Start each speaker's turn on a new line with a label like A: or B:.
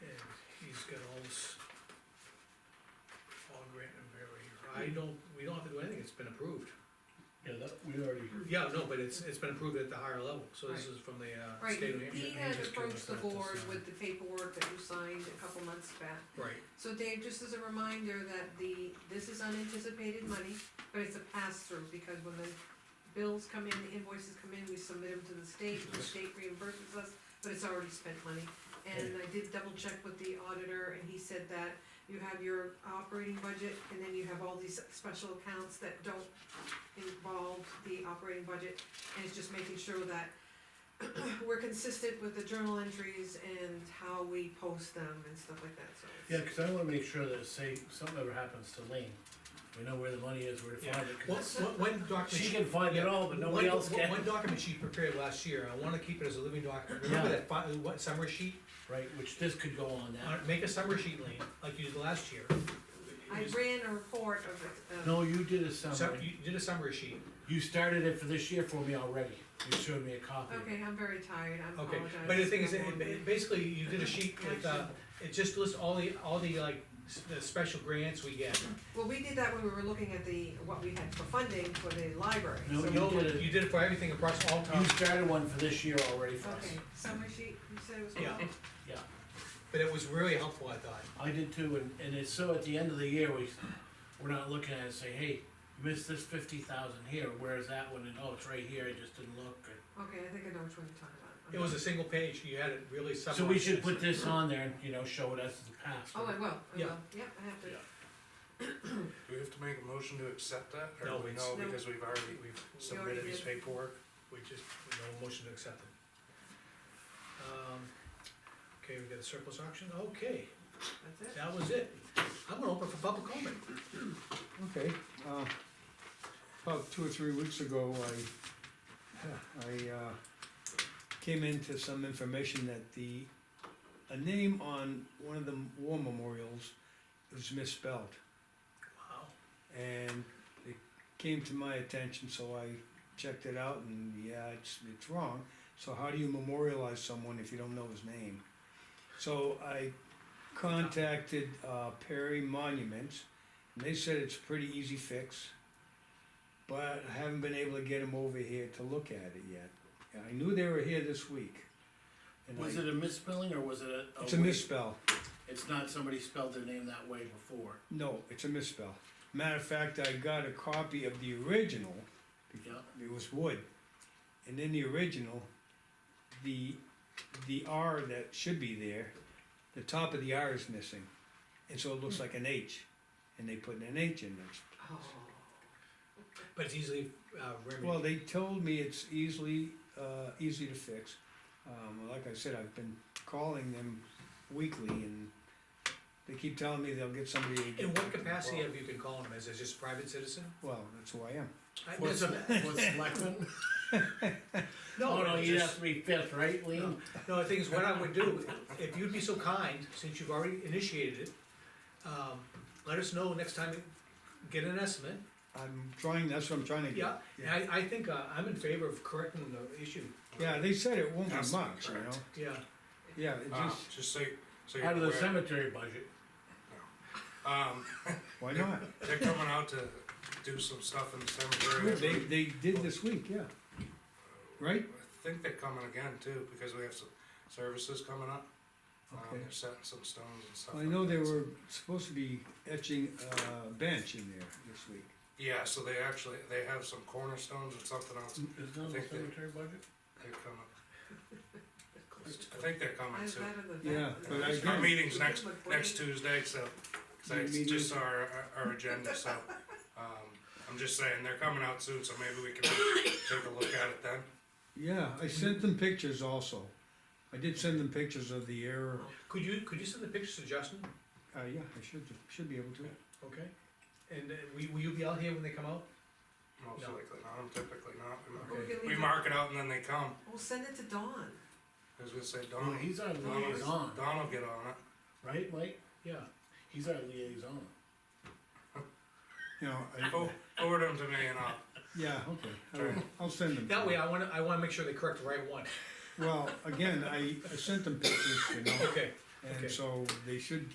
A: I don't, we don't have to do anything, it's been approved.
B: Yeah, that, we already.
A: Yeah, no, but it's, it's been approved at the higher level, so this
C: Right.
A: is from the, uh,
C: Right,
A: state of New
C: he
A: Hampshire.
C: had
B: just give us
C: approached the
B: that to
C: board
B: sign.
C: with the paperwork that you signed a couple months back.
A: Right,
C: So Dave, just as a reminder that the, this is unanticipated money, but it's a pass-through, because when the bills come in, the invoices come in, we submit them to the state, the state reimburses us, but it's already spent money. And I did double check with the auditor, and he said that you have your operating budget, and then you have all these special accounts that don't involve the operating budget, and it's just making sure that we're consistent with the journal entries and how we post them and stuff like that, so. it's-
B: Yeah, cause I wanna make sure that say something ever happens to Lean, we know where the money is, where to
A: yeah.
B: find it. 'cause
A: Well, one- one document.
B: She can find it all, but nobody
A: One-
B: else can.
A: One document she prepared last year, I wanna keep it as a living document, remember
B: Yeah.
A: that fi- what, summary sheet?
B: Right, which this could go on
A: Uh,
B: that.
A: Make a summary sheet, Lean, like you did last year.
C: I
A: Just-
C: ran a report of it, uh,
B: No, you did a
A: So,
B: summary,
A: you did a summary sheet,
B: you started it for this year for me already, you showed me a copy.
C: okay, I'm very tired, I
A: okay,
C: apologize.
A: but the thing is,
C: I'm
A: it-
C: on-
A: it- basically, you did a sheet with, uh, it just lists all the, all the, like, s- the special grants we get.
C: Well, we did that when we were looking at the, what we had for funding for the library,
B: No,
C: so-
B: you
A: No,
B: did it.
A: you did it for everything across all
B: You
A: towns,
B: started one for this year already for us,
C: Okay, summary sheet, you said it was.
A: Yeah.
B: yeah,
A: but it was really helpful, I thought.
B: I did too, and, and it's so at the end of the year, we, we're not looking at it and say, hey, you missed this fifty thousand here, where is that one, and oh, it's right here, I just didn't look, or
C: Okay, I think I know which one you're talking about.
A: It was a single page, you had it really summarized.
B: So we should put this on there and, you know, show it as the past.
C: Oh, I will, I
A: Yeah.
C: will, yeah, I have to,
B: Yeah.
D: Do we have to make a motion to accept that,
A: No,
D: or do we
A: it's-
D: know,
C: No.
D: because we've already,
C: We
D: we've
C: already
D: submitted this
C: did.
D: paperwork?
A: We just, no motion to accept it. Um, Okay, we got a surplus auction, okay,
C: that's it.
A: that was it. I'm gonna open for public comment.
E: Okay, uh, about two or three weeks ago, I, I, uh, came into some information that the, a name on one of the war memorials was misspelled.
A: Wow,
E: And it came to my attention, so I checked it out and yeah, it's, it's wrong. So how do you memorialize someone if you don't know his name? So I contacted, uh, Perry Monuments and they said it's a pretty easy fix. But I haven't been able to get them over here to look at it yet. I knew they were here this week. and
B: Was
E: I-
B: it a misspelling or was it a?
E: It's a misspell.
B: It's not somebody spelled their name that way before,
E: No, it's a misspell. Matter of fact, I got a copy of the original.
B: yeah,
E: It was wood. And in the original, the, the R that should be there, the top of the R is missing. And so it looks
A: Hmm.
E: like an H, and they put an H in there.
C: Oh,
A: but it's easily uh, remedied.
E: Well, they told me it's easily, uh, easy to fix. Um, like I said, I've been calling them weekly and they keep telling me they'll get somebody to get.
A: In what
E: back to me.
A: capacity have you been calling them, as a just private citizen?
E: Well, that's who I am.
A: I-
B: What's
A: that's a-
B: selectmen? Oh, no,
A: it's
B: you'd
A: just-
B: have to be fifth, right, Liam?
A: No, the thing is, what I would do, if you'd be so kind, since you've already initiated it, um, let us know next time, you get an estimate.
E: I'm trying, that's what I'm trying to get.
A: Yeah, and I, I think, uh, I'm in favor of correcting the issue,
E: Yeah, they said it won't be
D: That's
E: much, you know,
D: correct.
A: yeah.
E: yeah, it
D: Uh,
E: just,
D: Just say, so you're
B: Out of the
D: aware,
B: cemetery budget,
D: um,
E: why not?
D: they're coming out to do some stuff in the
E: They,
D: cemetery.
E: they did this week, yeah. Right?
D: I think they're coming again too, because we have some services coming up. Um,
E: Okay.
D: they're setting some stones and stuff.
E: I
D: like
E: know they
D: that, so-
E: were supposed to be etching a bench in there this week.
D: Yeah, so they actually, they have some cornerstones and something else,
B: is that the
D: Think that-
B: cemetery budget?
D: they're coming. I think they're
C: I
D: coming
C: was
D: soon.
C: out of the.
E: Yeah, but I
D: Our
E: guess-
D: meeting's next,
C: Look, wait.
D: next Tuesday, so, 'cause
E: Your
D: I
E: meeting-
D: just saw our, our our agenda, so, um, I'm just saying, they're coming out soon, so maybe we can take a look at it then.
E: Yeah, I sent them pictures also. I did send them pictures of the error,
A: Could you, could you send the pictures to Justin,
E: uh, yeah, I should, should be able to.
A: okay? And uh, will, will you be out here when they come out?
D: Most
A: No.
D: likely not, I'm typically not, we mark-
C: Or we could
D: we
C: leave it-
D: mark it out and then they come,
C: We'll send it to Dawn.
D: I was gonna say
B: Well,
D: Don,
B: Oh, he's our
C: Well, it's-
B: liaison,
D: Don will get on it.
B: right, Mike?
A: Yeah,
B: He's our liaison.
E: You know, I,
D: Fo- Forward them to me and I'll,
E: yeah, okay, all right, I'll send them.
A: that way I wanna, I wanna make sure they correct the right one,
E: Well, again, I, I sent them pictures, you know,
A: okay. okay.
E: and so they should